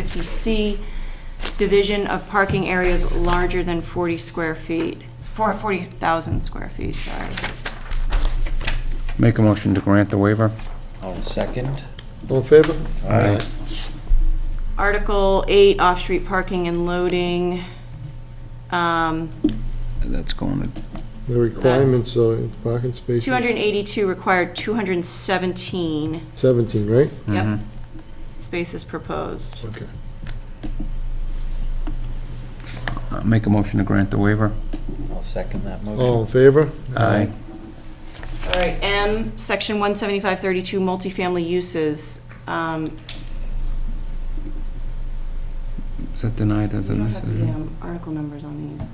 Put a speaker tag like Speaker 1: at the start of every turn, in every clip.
Speaker 1: 550C, division of parking areas larger than 40 square feet, four- 40,000 square feet, sorry.
Speaker 2: Make a motion to grant the waiver.
Speaker 3: I'll second.
Speaker 4: All in favor?
Speaker 2: Aye.
Speaker 1: Article 8, off-street parking and loading. Um,
Speaker 2: That's going to,
Speaker 4: The requirements are parking space
Speaker 1: 282 required, 217,
Speaker 4: 17, right?
Speaker 1: yep,
Speaker 2: mm-hmm.
Speaker 1: spaces proposed.
Speaker 4: Okay.
Speaker 2: uh, make a motion to grant the waiver.
Speaker 3: I'll second that
Speaker 4: All in
Speaker 3: motion.
Speaker 4: favor?
Speaker 2: Aye.
Speaker 1: All right, M, section 17532, multifamily uses. Um,
Speaker 2: Is that denied as
Speaker 1: We
Speaker 2: an
Speaker 1: don't have the
Speaker 2: decision?
Speaker 1: um, article numbers on these.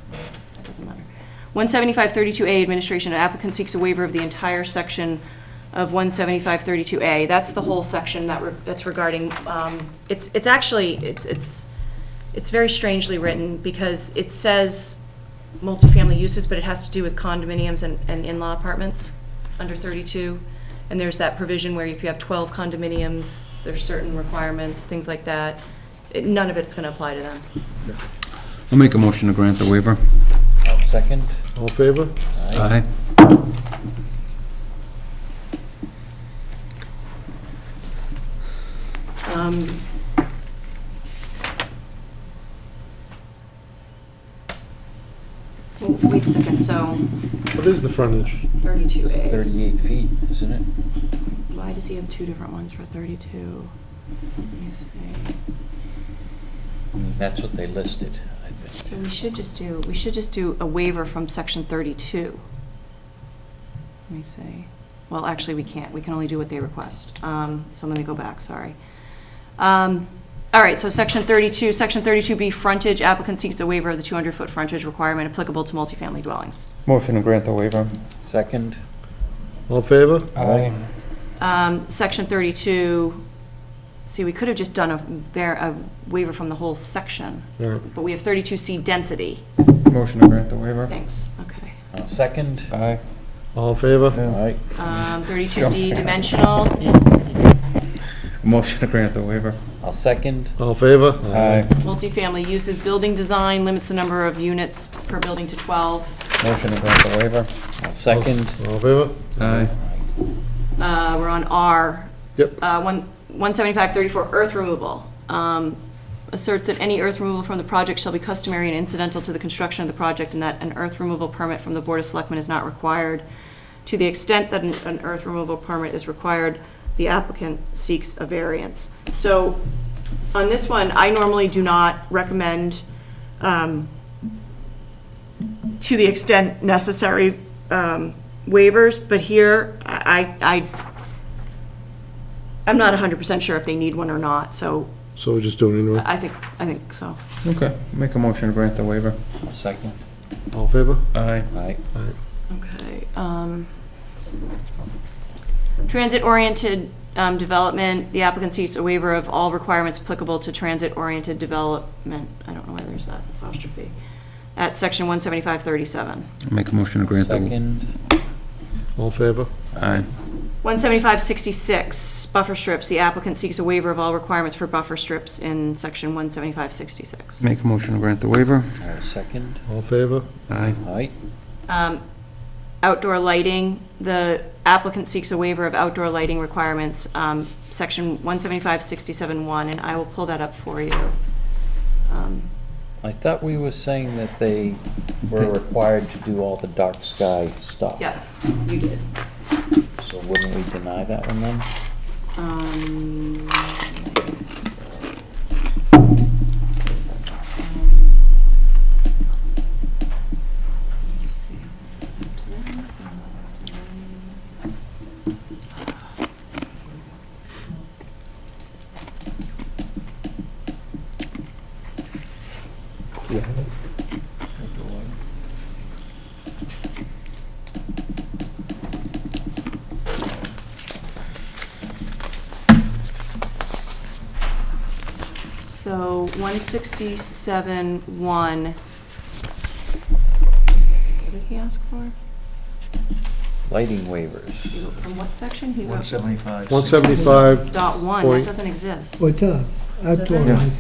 Speaker 1: That doesn't matter. 17532A, administration, applicant seeks a waiver of the entire section of 17532A. That's the whole section that, re- that's regarding, um, it's, it's actually, it's, it's, it's very strangely written because it says multifamily uses, but it has to do with condominiums and, and in-law apartments under 32. And there's that provision where if you have 12 condominiums, there's certain requirements, things like that. It- None of it's going to apply to them.
Speaker 2: I'll make a motion to grant the waiver.
Speaker 3: I'll second.
Speaker 4: All in favor?
Speaker 2: Aye.
Speaker 1: Um, w- oh, Wait a second, so
Speaker 4: What is the frontage?
Speaker 1: 32A,
Speaker 3: Thirty-eight feet, isn't it?
Speaker 1: why does he have two different ones for 32? Let me see.
Speaker 3: I mean, That's what they listed, I
Speaker 1: So
Speaker 3: think.
Speaker 1: we should just do, we should just do a waiver from section 32. Let me see. Well, actually, we can't. We can only do what they request. Um, So let me go back, sorry. Um, All right, so section 32, section 32B, frontage, applicant seeks a waiver of the 200-foot frontage requirement applicable to multifamily dwellings.
Speaker 2: Motion to grant the waiver.
Speaker 3: Second.
Speaker 4: All in favor?
Speaker 3: Aye.
Speaker 1: Um, Section 32, see, we could have just done a, var- a waiver from the whole section,
Speaker 4: All right.
Speaker 1: but we have 32C density.
Speaker 2: Motion to grant the waiver.
Speaker 1: Thanks, okay.
Speaker 3: I'll second.
Speaker 2: Aye.
Speaker 4: All in favor?
Speaker 3: Aye.
Speaker 1: Um, 32D dimensional,
Speaker 2: Motion to grant the waiver.
Speaker 3: I'll second.
Speaker 4: All in favor?
Speaker 1: multifamily uses, building design limits the number of units per building to 12.
Speaker 2: Motion to grant the waiver.
Speaker 3: I'll second.
Speaker 4: All in favor?
Speaker 2: Aye.
Speaker 1: Uh, We're on R,
Speaker 4: Yep.
Speaker 1: uh, one- 17534, earth removal. Um, Asserts that any earth removal from the project shall be customary and incidental to the construction of the project, and that an earth removal permit from the Board of Selectmen is not required. To the extent that an- an earth removal permit is required, the applicant seeks a variance. So on this one, I normally do not recommend, um, to the extent necessary, um, waivers, but here, I, I I'm not 100% sure if they need one or not, so
Speaker 4: So we're just doing it anyway.
Speaker 1: I think, I think so.
Speaker 2: Okay, make a motion to grant the waiver.
Speaker 3: I'll second.
Speaker 4: All in favor?
Speaker 2: Aye.
Speaker 3: Aye.
Speaker 1: Okay. um, Transit-oriented um, development, the applicant seeks a waiver of all requirements applicable to transit-oriented development, I don't know why there's that apostrophe, at section 17537.
Speaker 2: Make a motion to grant the.
Speaker 3: Second.
Speaker 4: All in favor?
Speaker 2: Aye.
Speaker 1: 17566, buffer strips, the applicant seeks a waiver of all requirements for buffer strips in section 17566.
Speaker 2: Make a motion to grant the waiver.
Speaker 3: I'll second.
Speaker 4: All in favor?
Speaker 2: Aye.
Speaker 3: Aye.
Speaker 1: Um, Outdoor lighting, the applicant seeks a waiver of outdoor lighting requirements, um, section 175-67-1, and I will pull that up for you. Um,
Speaker 3: I thought we were saying that they were required to do all the dark sky stuff.
Speaker 1: Yeah, you did.
Speaker 3: So wouldn't we deny that one then?
Speaker 1: Um, So 167-1. What did he ask for?
Speaker 3: lighting waivers.
Speaker 1: From what section? He wrote
Speaker 5: 175.
Speaker 4: One seventy-five
Speaker 1: dot one,
Speaker 4: Point.
Speaker 1: that doesn't exist.
Speaker 6: Well, it does. Outdoor
Speaker 1: Yeah.
Speaker 6: lighting.